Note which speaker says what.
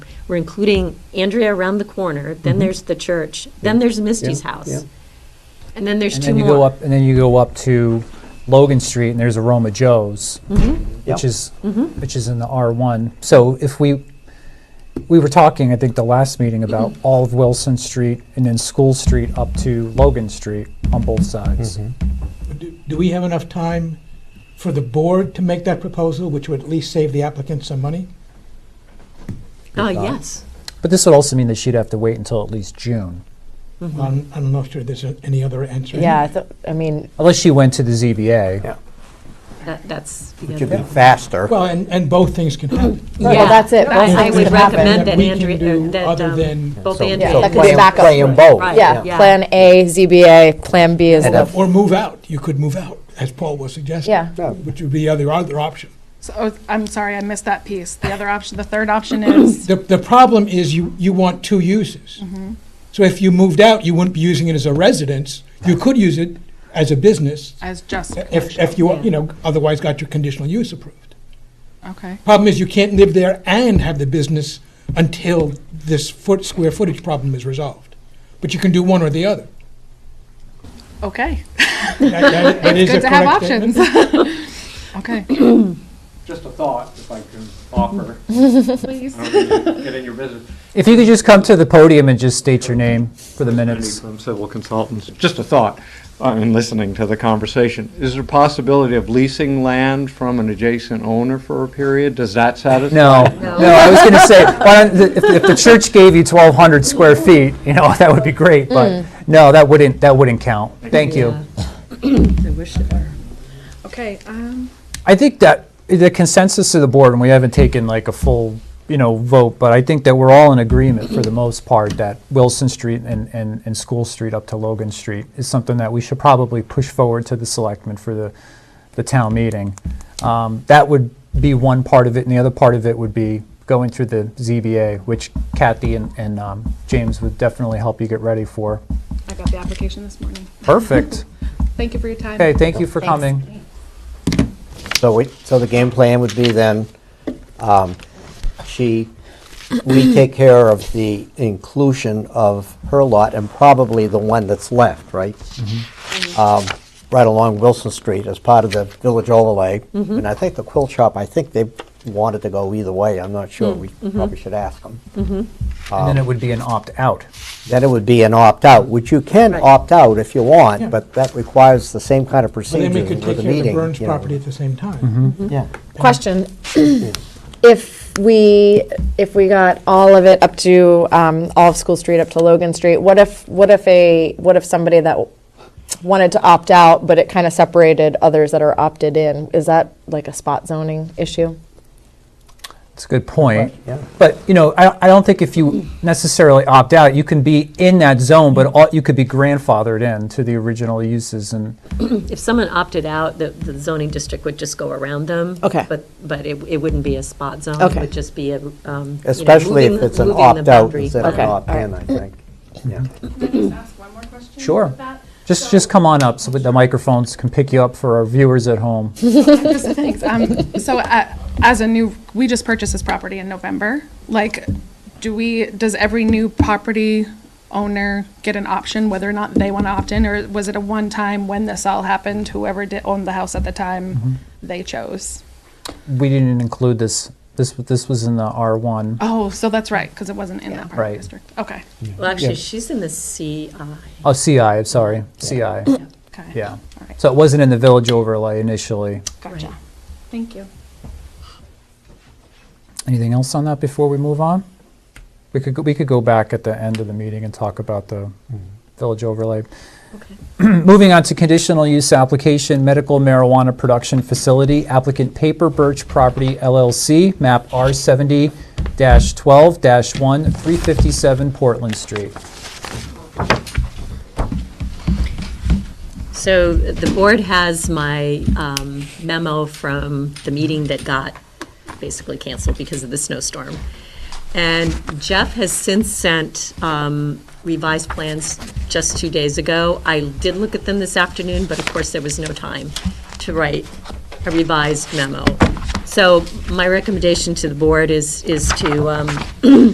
Speaker 1: We're including Andrea around the corner, then there's the church, then there's Misty's
Speaker 2: Mm-hmm. yeah, yeah.
Speaker 1: house. And then there's
Speaker 3: And
Speaker 1: two
Speaker 3: then you go
Speaker 1: more.
Speaker 3: up, and then you go up to Logan Street, and there's Aroma Joe's,
Speaker 2: Yep.
Speaker 3: which is, which is in the R1. So if we, we were talking, I think, the last meeting about all of Wilson Street and then School Street up to Logan Street on both sides.
Speaker 4: Do do we have enough time for the board to make that proposal, which would at least save the applicant some money?
Speaker 1: Oh, yes.
Speaker 3: But this would also mean that she'd have to wait until at least June,
Speaker 4: I'm I'm not sure there's a- any other answer.
Speaker 5: Yeah, I thought- I mean,
Speaker 3: unless she went to the ZBA.
Speaker 2: Yeah.
Speaker 1: That, that's. the
Speaker 2: It could
Speaker 1: other-
Speaker 2: be faster.
Speaker 4: Well, and, and both things can happen.
Speaker 5: well, that's it.
Speaker 1: but
Speaker 5: Both
Speaker 1: I
Speaker 5: things
Speaker 1: would
Speaker 5: can happen.
Speaker 1: recommend
Speaker 4: That
Speaker 1: that
Speaker 4: we can
Speaker 1: Andrea,
Speaker 4: do
Speaker 1: uh, that,
Speaker 4: other
Speaker 1: um,
Speaker 4: than-
Speaker 1: both
Speaker 2: So-
Speaker 1: Andrea.
Speaker 5: Yeah,
Speaker 2: So
Speaker 5: that
Speaker 1: and
Speaker 5: could be
Speaker 2: play 'em-
Speaker 5: backup.
Speaker 2: Play them both.
Speaker 1: Right.
Speaker 5: yeah,
Speaker 1: yeah.
Speaker 5: Plan A, ZBA, Plan B is
Speaker 2: And
Speaker 5: the,
Speaker 2: if-
Speaker 4: Or move out. You could move out, as Paul was suggesting.
Speaker 5: Yeah.
Speaker 2: Yeah.
Speaker 4: Which would be other, other option.
Speaker 6: So, oh, I'm sorry, I missed that piece. The other option, the third option is,
Speaker 4: The, the problem is you, you want two uses. So if you moved out, you wouldn't be using it as a residence. You could use it as a business
Speaker 6: as just
Speaker 4: if, if you, you know, otherwise got your conditional use approved.
Speaker 6: Okay,
Speaker 4: Problem is you can't live there and have the business until this foot, square footage problem is resolved. But you can do one or the other.
Speaker 6: okay.
Speaker 4: It's
Speaker 6: Good to have options. Okay.
Speaker 7: just a thought, if I can offer.
Speaker 6: Please.
Speaker 7: I don't mean to Get in your business.
Speaker 3: If you could just come to the podium and just state your name for the minutes.
Speaker 7: From civil consultants, just a thought, uh, in listening to the conversation. Is there a possibility of leasing land from an adjacent owner for a period? Does that satisfy?
Speaker 3: No, no, I was going to say, why don't- if, if the church gave you 1,200 square feet, you know, that would be great, but no, that wouldn't, that wouldn't count. Thank you.
Speaker 1: I wish it were.
Speaker 6: Okay, um,
Speaker 3: I think that the consensus of the board, and we haven't taken like a full, you know, vote, but I think that we're all in agreement for the most part that Wilson Street and, and, and School Street up to Logan Street is something that we should probably push forward to the selectmen for the, the town meeting. Um, that would be one part of it, and the other part of it would be going through the ZBA, which Kathy and, and, um, James would definitely help you get ready for.
Speaker 6: I got the application this morning.
Speaker 3: Perfect.
Speaker 6: Thank you for your time.
Speaker 3: Okay, thank you for
Speaker 5: Thanks.
Speaker 3: coming.
Speaker 2: So we, so the game plan would be then, um, she, we take care of the inclusion of her lot and probably the one that's left, right? Um, Right along Wilson Street as part of the village overlay. And I think the quilt shop, I think they wanted to go either way, I'm not sure, we probably should ask them.
Speaker 3: And then it would be an opt-out.
Speaker 2: Then it would be an opt-out, which you can
Speaker 1: Right.
Speaker 2: opt out if you
Speaker 4: Yeah.
Speaker 2: want, but that requires the same kind of
Speaker 4: Well,
Speaker 2: procedure
Speaker 4: then we
Speaker 2: with a
Speaker 4: could take
Speaker 2: meeting.
Speaker 4: care of the Burns
Speaker 2: you know.
Speaker 4: property at the same time.
Speaker 2: Yeah.
Speaker 5: question. If we, if we got all of it up to, um, all of School Street up to Logan Street, what if, what if a, what if somebody that wanted to opt out, but it kind of separated others that are opted in? Is that like a spot zoning issue?
Speaker 3: It's a good point.
Speaker 2: Right, yeah.
Speaker 3: But, you know, I, I don't think if you necessarily opt out, you can be in that zone, but all, you could be grandfathered in to the original uses and,
Speaker 1: If someone opted out, the, the zoning district would just go around them.
Speaker 5: Okay.
Speaker 1: But, but it, it wouldn't be a spot zone. It
Speaker 5: Okay.
Speaker 1: would just be a, um. you know,
Speaker 2: Especially if
Speaker 1: moving-
Speaker 2: it's an
Speaker 1: moving the
Speaker 2: opt-out
Speaker 1: boundary.
Speaker 2: instead of an
Speaker 5: Okay.
Speaker 2: opt-in, I think. Yeah.
Speaker 6: Can I just ask one more question?
Speaker 3: Sure.
Speaker 6: about that?
Speaker 3: just,
Speaker 6: So-
Speaker 3: just come on up so that the microphones can pick you up for our viewers at home.
Speaker 6: Just thanks. Um, so uh, as a new, we just purchased this property in November. Like, do we, does every new property owner get an option whether or not they want to opt in? Or was it a one-time when this all happened, whoever did, owned the house at the time, they chose?
Speaker 3: We didn't include this, this, this was in the R1.
Speaker 6: Oh, so that's right, because it wasn't in that part of
Speaker 3: Right.
Speaker 6: the district. Okay,
Speaker 1: Well, actually, she's in the CI.
Speaker 3: Oh, CI, I'm sorry, CI,
Speaker 6: okay.
Speaker 3: yeah.
Speaker 6: All right,
Speaker 3: So it wasn't in the village overlay initially.
Speaker 6: gotcha. Thank you.
Speaker 3: Anything else on that before we move on? We could, go- we could go back at the end of the meeting and talk about the village overlay.
Speaker 1: Okay.
Speaker 3: Moving on to conditional use application, medical marijuana production facility, applicant Paper Birch Property LLC, map R70-12-1, 357 Portland Street.
Speaker 1: So the board has my um, memo from the meeting that got basically canceled because of the snowstorm. And Jeff has since sent um, revised plans just two days ago. I did look at them this afternoon, but of course, there was no time to write a revised memo. So my recommendation to the board is, is to um,